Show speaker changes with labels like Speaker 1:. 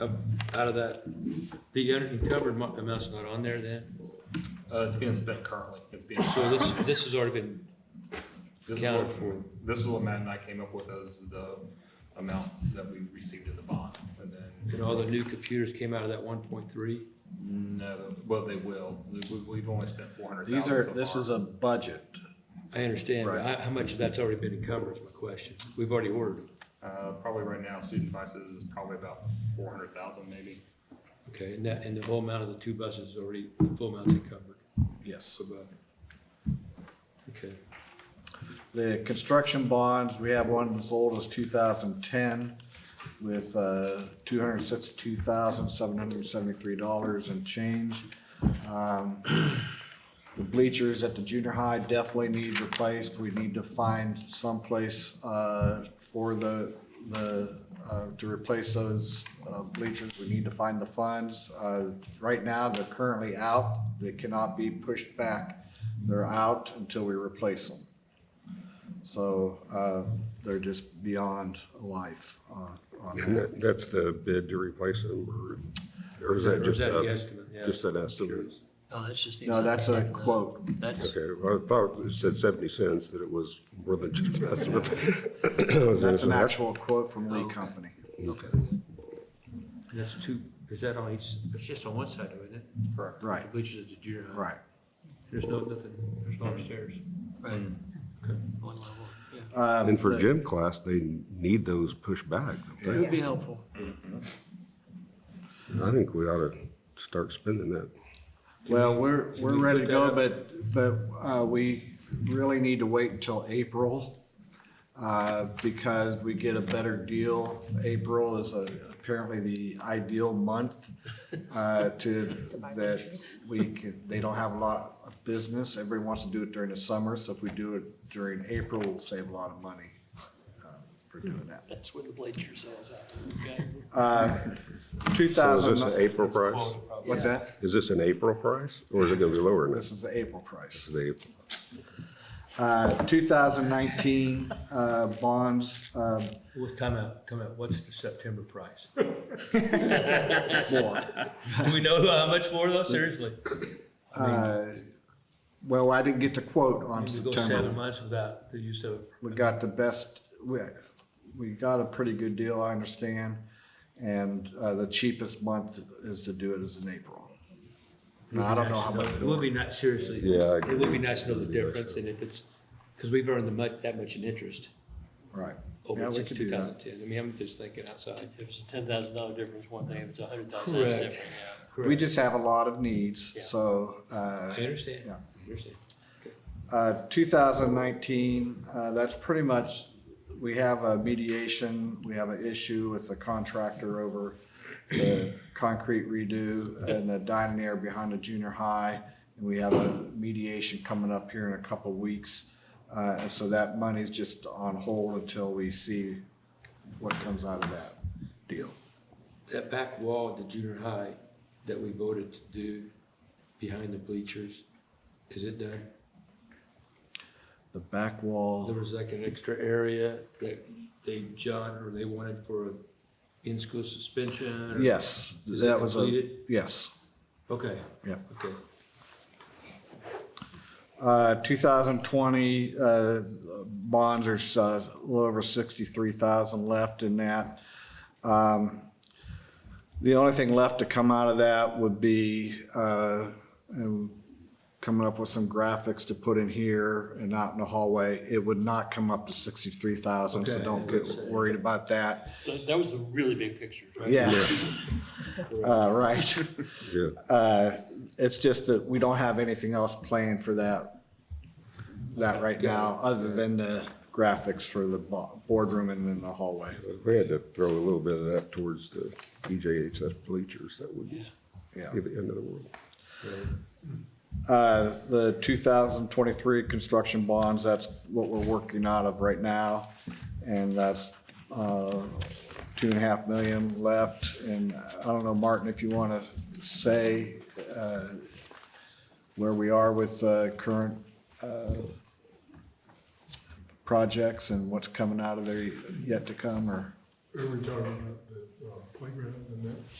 Speaker 1: Up- Out of that, the unencumbered mo- amount's not on there then?
Speaker 2: Uh, it's being spent currently. It's being,
Speaker 1: So this, this has already been
Speaker 2: this is
Speaker 1: accounted
Speaker 2: what,
Speaker 1: for.
Speaker 2: this is what Matt and I came up with as the amount that we received as a bond. And then,
Speaker 1: And all the new computers came out of that one point three?
Speaker 2: no, well, they will. We, we- we've only spent four hundred thousand
Speaker 3: These
Speaker 2: so
Speaker 3: are,
Speaker 2: far.
Speaker 3: this is a budget.
Speaker 1: I understand, but
Speaker 3: Right.
Speaker 1: how, how much of that's already been encumbered is my question. We've already ordered them,
Speaker 2: Uh, probably right now, student devices is probably about four hundred thousand maybe.
Speaker 1: okay? And that, and the whole amount of the two buses is already, the full amount's encumbered,
Speaker 3: Yes.
Speaker 1: so about. Okay,
Speaker 3: The construction bonds, we have one as old as two thousand ten with, uh, two hundred sixty-two thousand, seven hundred seventy-three dollars and change. Um, The bleachers at the junior high definitely need replaced. We need to find someplace, uh, for the, the, uh, to replace those, uh, bleachers. We need to find the funds. Uh, right now, they're currently out. They cannot be pushed back. They're out until we replace them. So uh, they're just beyond life on on
Speaker 4: And
Speaker 3: that.
Speaker 4: that, that's the bid to replace them, or, or is that
Speaker 1: Or is
Speaker 4: just
Speaker 1: that a
Speaker 4: a,
Speaker 1: guesstimate? Yeah.
Speaker 4: just an estimate?
Speaker 5: Oh, that's just. the
Speaker 3: No, that's a
Speaker 5: exact amount.
Speaker 3: quote.
Speaker 5: That's,
Speaker 4: Okay, well, I thought it said seventy cents, that it was more than just an estimate.
Speaker 3: That's an actual quote from Lee Company.
Speaker 4: Okay.
Speaker 1: And That's two, is that on each, it's just on one side, though, isn't it?
Speaker 2: Correct.
Speaker 3: Right,
Speaker 1: The bleachers at the junior high.
Speaker 3: right.
Speaker 1: There's no, nothing, there's no upstairs.
Speaker 5: right,
Speaker 1: Okay.
Speaker 5: one level, yeah.
Speaker 3: Um,
Speaker 4: And for
Speaker 3: the-
Speaker 4: gym class, they need those pushed back. don't
Speaker 5: It
Speaker 4: they?
Speaker 5: would be helpful.
Speaker 4: I think we ought to start spending that.
Speaker 3: Well, we're, we're
Speaker 1: we
Speaker 3: ready to
Speaker 1: put
Speaker 3: go,
Speaker 1: that
Speaker 3: but, but uh, we really need to wait until April uh, because we get a better deal. April is uh, apparently the ideal month uh, to, that we, can- they don't have a lot of business. Everybody wants to do it during the summer, so if we do it during April, we'll save a lot of money uh, for doing that.
Speaker 5: That's where the bleacher sales at.
Speaker 3: Two
Speaker 4: So is this
Speaker 3: thousand,
Speaker 4: an April price?
Speaker 3: what's that?
Speaker 4: Is this an April price, or is it gonna be lower than
Speaker 3: This
Speaker 4: this?
Speaker 3: is the April price.
Speaker 4: Is the April-
Speaker 3: Uh, 2019 uh, bonds, uh,
Speaker 1: Well, time out, time out. What's the September price?
Speaker 3: more.
Speaker 1: Do we know how much more though? Seriously?
Speaker 3: Uh, Well, I didn't get the quote on
Speaker 1: We go seven
Speaker 3: September.
Speaker 1: months without the use of,
Speaker 3: We got the best, we, we got a pretty good deal, I understand. And uh, the cheapest month is to do it is in April. Now, I don't know how much.
Speaker 1: It would be nice, seriously.
Speaker 4: Yeah, I
Speaker 1: It would be
Speaker 4: agree.
Speaker 1: nice to know the
Speaker 4: It'd be nice
Speaker 1: difference
Speaker 4: to
Speaker 1: and if it's, because we've earned the much, that much in interest
Speaker 3: Right. Yeah,
Speaker 1: over
Speaker 3: we
Speaker 1: since
Speaker 3: could do
Speaker 1: two
Speaker 3: that.
Speaker 1: thousand ten. I mean, I'm just thinking outside.
Speaker 5: If it's a ten thousand dollar difference, one thing, if it's a hundred thousand, that's
Speaker 1: Correct.
Speaker 5: different, yeah.
Speaker 3: We just have a lot of needs,
Speaker 5: Yeah.
Speaker 3: so. uh,
Speaker 1: I understand.
Speaker 3: Yeah.
Speaker 1: I understand.
Speaker 3: Uh, 2019, uh, that's pretty much, we have a mediation, we have an issue with the contractor over the concrete redo and the dining area behind the junior high. And we have a mediation coming up here in a couple of weeks. Uh, And so that money's just on hold until we see what comes out of that deal.
Speaker 1: That back wall at the junior high that we voted to do behind the bleachers, is it done?
Speaker 3: The back
Speaker 1: There
Speaker 3: wall,
Speaker 1: was like an extra area that they, John, or they wanted for a in-school suspension? or-
Speaker 3: yes,
Speaker 1: Is
Speaker 3: that
Speaker 1: it
Speaker 3: was a,
Speaker 1: completed?
Speaker 3: yes.
Speaker 1: Okay.
Speaker 3: Yeah.
Speaker 1: Okay.
Speaker 3: Uh, 2020 uh, bonds, there's uh, a little over 63,000 left in that. Um, The only thing left to come out of that would be uh, and coming up with some graphics to put in here and out in the hallway. It would not come up to 63,000, so
Speaker 1: Okay.
Speaker 3: don't get worried about that.
Speaker 5: That, that was the really big picture, right?
Speaker 3: Yeah. Uh, Right.
Speaker 4: Yeah.
Speaker 3: Uh, It's just that we don't have anything else planned for that, that right now, other than the graphics for the bo- boardroom and in the hallway.
Speaker 4: If We had to throw a little bit of that towards the E EJHS bleachers, that would be
Speaker 3: Yeah.
Speaker 4: the end of the world.
Speaker 3: Uh, The 2023 construction bonds, that's what we're working out of right now. And that's uh, two and a half million left. And I don't know, Martin, if you want to say uh, where we are with uh, current uh, projects and what's coming out of there yet to come, or?
Speaker 6: Are we talking about the, um, playground and that.